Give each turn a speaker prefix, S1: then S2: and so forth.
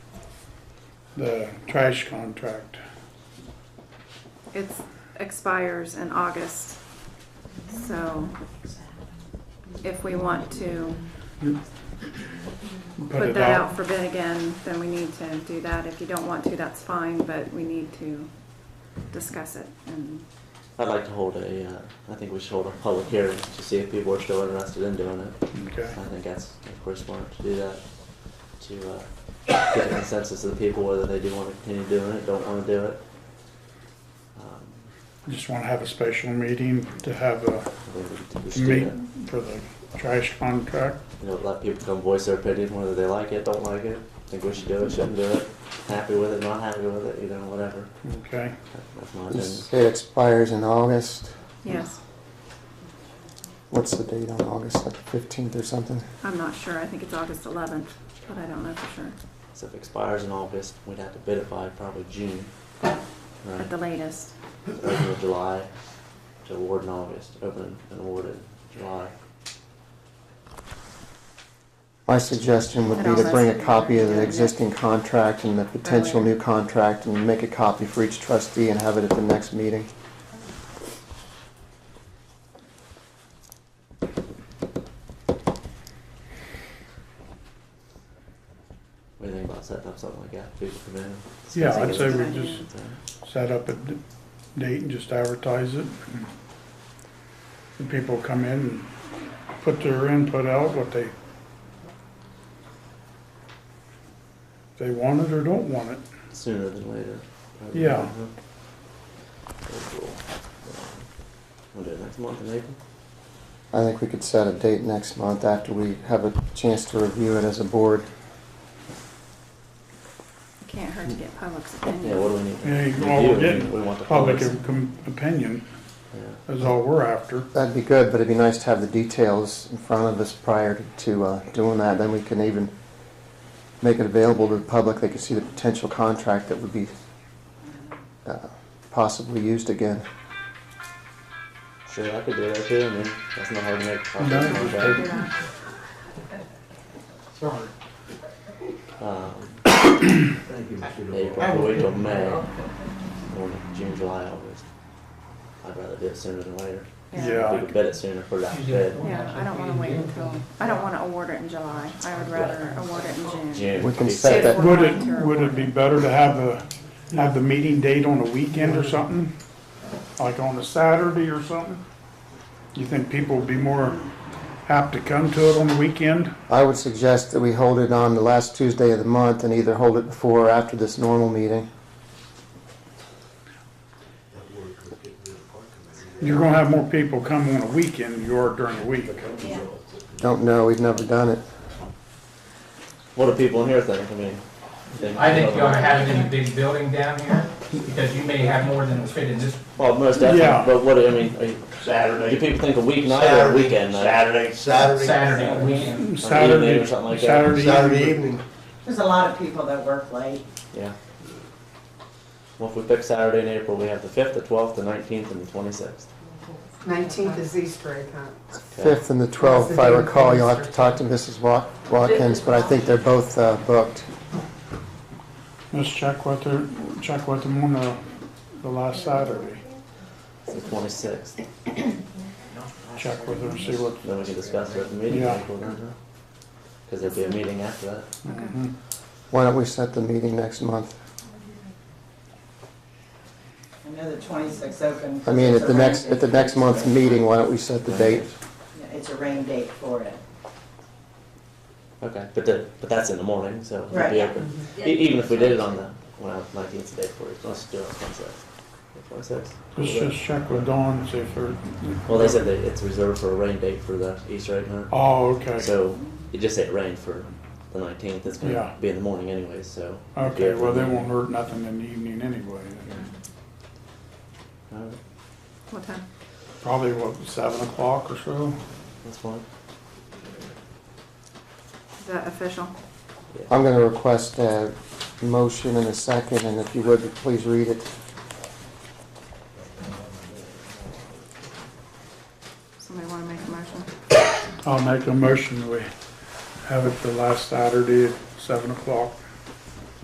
S1: the trash contract.
S2: It expires in August. So if we want to put
S1: it
S2: that out for bid again, then we need to do that. If you don't want to, that's fine, but we need to discuss it and
S3: I'd like to hold a, uh, I think we should hold a public hearing to see if people are still interested in doing it.
S1: Okay,
S3: I think that's, of course, smart to do that, to, uh, get a consensus of the people whether they do wanna continue doing it, don't wanna do it. Um,
S1: just wanna have a special meeting to have a
S3: I think we should do
S1: meet
S3: that.
S1: for the trash contract.
S3: You know, let people come voice their opinion, whether they like it, don't like it, think we should do it, shouldn't do it, happy with it, not happy with it, you know, whatever.
S1: Okay,
S3: That- That's my
S4: You
S3: opinion.
S4: say it expires in August.
S2: yes,
S4: What's the date on August, like fifteenth or something?
S2: I'm not sure. I think it's August eleventh, but I don't know for sure
S3: So if it expires in August, we'd have to bid it by probably June, right?
S2: at the latest.
S3: open in July, to award in August, open and award in July.
S4: My suggestion would
S2: It
S4: be to
S2: almost-
S4: bring a copy of the
S2: yeah.
S4: existing contract and the potential new contract and make a copy for each trustee and have it at the next meeting.
S3: What do you think about setting up something like that, people come in?
S1: Yeah, I'd
S3: discuss
S1: say
S3: it?
S1: we just set up a d- date and just advertise it. The people come in and put their input out, what they they want it or don't want it.
S3: Sooner than later. probably.
S1: Yeah.
S3: Very cool. We'll do it next month in April,
S4: I think we could set a date next month after we have a chance to review it as a board.
S2: It can't hurt to get public's
S3: yeah, what
S2: opinion.
S3: do we need?
S1: Yeah,
S3: We
S1: well,
S3: do,
S1: we're
S3: we-
S1: getting
S3: We want the
S1: Public
S3: public's-
S1: com- opinion
S3: yeah.
S1: is all we're after.
S4: That'd be good, but it'd be nice to have the details in front of us prior to- to uh, doing that. Then we can even make it available to the public. They can see the potential contract that would be uh, possibly used again.
S3: Sure, I could do that too, I mean, that's not hard to make.
S1: No, it's
S3: Okay.
S1: paper.
S2: Yeah.
S1: Sorry.
S3: Um, April, wait till May, or June, July, August. I'd rather do it sooner than later.
S1: Yeah.
S3: We could bid it sooner for that bid.
S2: Yeah, I don't wanna wait until, I don't wanna award it in July. I would rather award it in June.
S3: June.
S4: We can
S3: be safe.
S4: set that-
S1: Would it, would it be better to have the, have the meeting date on a weekend or something? Like on a Saturday or something? You think people would be more apt to come to it on the weekend?
S4: I would suggest that we hold it on the last Tuesday of the month and either hold it before or after this normal meeting.
S1: You're gonna have more people come on a weekend than you are during the week.
S4: Don't know, we've never done it.
S3: What do people in here think? I mean, they-
S5: I think you ought to have it in a big building down here, because you may have more than fit in this.
S3: Well, most definitely.
S1: Yeah.
S3: But what do I mean? Are you, do
S6: Saturday.
S3: people think a weeknight or a
S6: Saturday,
S3: weekend? night?
S6: Saturday. Saturday.
S5: Saturday weekend.
S1: Saturday,
S3: or something like that.
S6: Saturday
S1: Saturday evening.
S6: evening.
S7: There's a lot of people that work late.
S3: Yeah. Well, if we pick Saturday in April, we have the fifth, the twelfth, the nineteenth, and the twenty-sixth.
S8: Nineteenth is Easter egg hunt.
S4: Fifth and the twelfth, if I recall, you'll have to talk to Mrs. Wat- Watkins, but I think they're both uh, booked.
S1: Let's check with her, check with them on the, the last Saturday.
S3: It's the twenty-sixth.
S1: Check with her and see what,
S3: Then we can discuss it at the meeting.
S1: Yeah.
S3: Because there'll be a meeting after that.
S1: mhm.
S4: Why don't we set the meeting next month?
S7: I know the 26th open.
S4: I mean, at the next, at
S7: it's
S4: the
S7: a rain
S4: next
S7: date.
S4: month's meeting, why don't we set the date?
S7: Yeah, It's a rain date for it.
S3: Okay, but the, but that's in the morning, so it'll
S7: Right.
S3: be open. E- even if we did it on the well, nineteenth day for it, let's do it on twenty-sixth. Twenty-sixth.
S1: Let's just check with Dawn and see if her.
S3: Well, they said that it's reserved for a rain date for the Easter egg hunt.
S1: Oh, okay.
S3: So it just said rain for the nineteenth. It's gonna
S1: Yeah.
S3: be in the morning anyway, so.
S1: Okay, well, they won't hurt nothing in the evening anyway.
S3: Alright,
S2: What time?
S1: Probably, what, seven o'clock or so?
S3: that's fine.
S2: Is that official?
S4: I'm gonna request a motion and a second, and if you would, please read it.
S2: Somebody wanna make a motion?
S1: I'll make a motion, we have it the last Saturday at seven o'clock.